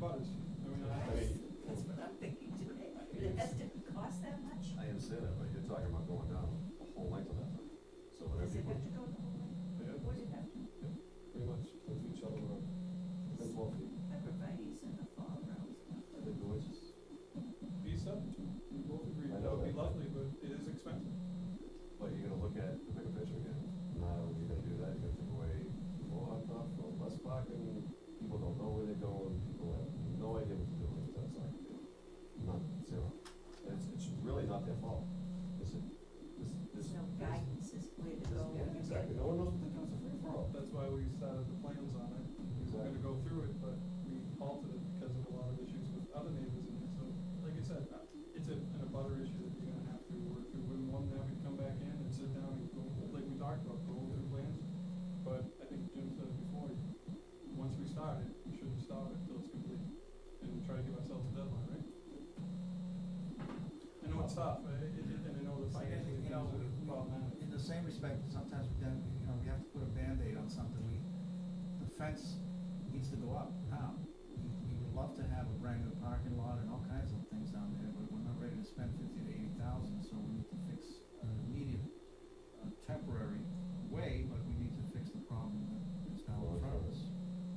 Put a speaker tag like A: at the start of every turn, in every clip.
A: buzz. I mean, I-
B: That's what I'm thinking today, but it has to cost that much?
C: I understand that, but you're talking about going down the whole length of that thing.
B: Does
C: So whatever you
B: it
C: put,
B: have to go the whole way?
A: yeah,
B: Would it have to?
C: pretty much, put each other up, then twelve feet,
B: Everybody's in the fall rows.
C: and then noises.
A: Visa, we both agree,
C: I
A: that would
C: know
A: be
C: that.
A: lovely, but it is expensive.
C: But you're gonna look at the bigger picture again, now you're gonna do that, you're gonna take away more hot stuff, or less parking, people don't know where they're going, people have no idea what to do, with it. that's like, none, zero. And it's, it's really not their fault, is it? This, this.
B: There's no
C: this-
B: guidance as where to
C: this-
B: go.
C: yeah, Exactly, no one knows what they're doing, it's a free for all.
A: That's why we started the plans on it. We were gonna go through it, but we halted it because of a lot of issues with other neighbors in it. So, like I said, uh, it's a, an abutter issue that you're gonna have to work through. Wouldn't want to have it come back in and sit down and go, like we talked about, go over the plans. But I think Jim said it before, once we start it, we shouldn't stop it until it's complete and try to give ourselves a deadline, right? I know it's tough, uh, it- it- and I know the
D: I guess,
A: financial
D: you
A: things
D: know,
A: are
D: we- we-
A: problematic.
D: In the same respect, sometimes we then, you know, we have to put a Band-Aid on something, we, the fence needs to go up now. We- We would love to have a brand new parking lot and all kinds of things down there, but we're not ready to spend fifty to eighty thousand, so we need to fix an immediate, uh, temporary way, but we need to fix the problem that is now in front of us.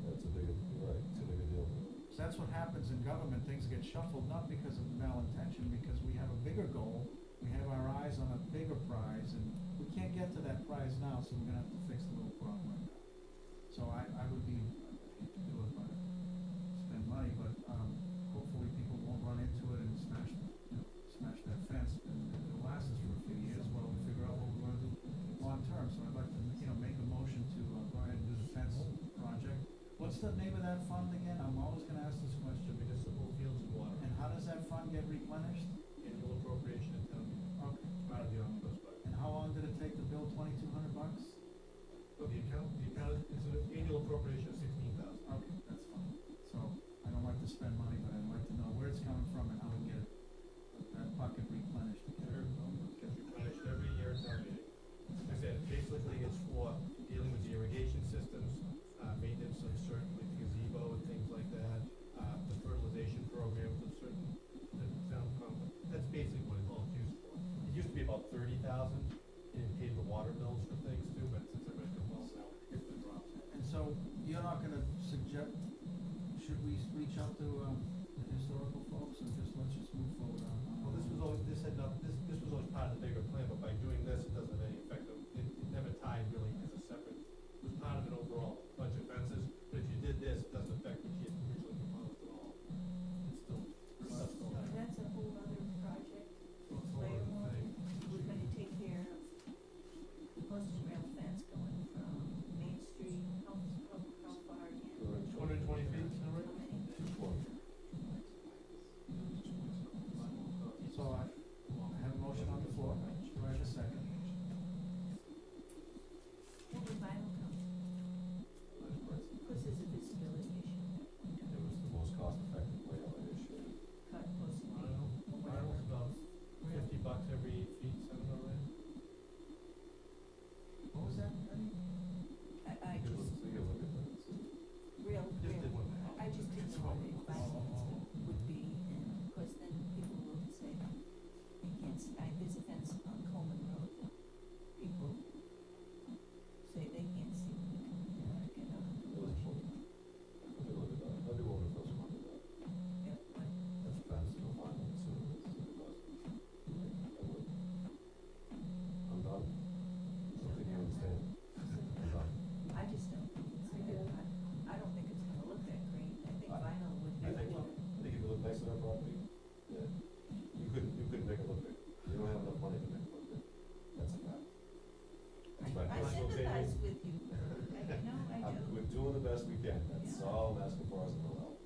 C: That's a big, you're right, it's a big deal.
D: So that's what happens in government, things get shuffled, not because of malintention, because we have a bigger goal, we have our eyes on a bigger prize, and we can't get to that prize now, so we're gonna have to fix the little problem right now. So I, I would be, I hate to do it, but spend money, but, um, hopefully people won't run into it and smash, you know, smash that fence, and it'll last us for a few years while we figure out what we wanna do long-term, so I'd like to, you know, make a motion to, uh, go ahead and do the fence project. What's the name of that fund again? I'm always gonna ask this question.
E: municipal fields and water,
D: And how does that fund get replenished?
E: annual appropriation at town meeting,
D: Okay.
E: out of the omnibus budget.
D: And how long did it take to build twenty-two hundred bucks?
E: But the account, the account is an annual appropriation of sixteen thousand.
D: Okay, that's fine. So, I don't like to spend money, but I'd like to know where it's coming from and how we get it, that bucket replenished.
E: Sure. Gets replenished every year at town meeting. Like I said, basically it's for dealing with the irrigation systems, uh, maintenance of certain, like the gazebo and things like that, uh, the fertilization program for certain, the sound pump. That's basically what it's all used for. It used to be about thirty thousand, and it paid the water bills for things too, but since everybody's got wells now, it's been dropped.
D: And so, you're not gonna suggest, should we s- reach out to, um, the historical folks and just let's just move forward on? on
E: Well, this was always, this had not, this, this was always part of the bigger plan, but by doing this, it doesn't have any effect of, it, it never tied really as a separate, it was part of an overall bunch of fences, but if you did this, it doesn't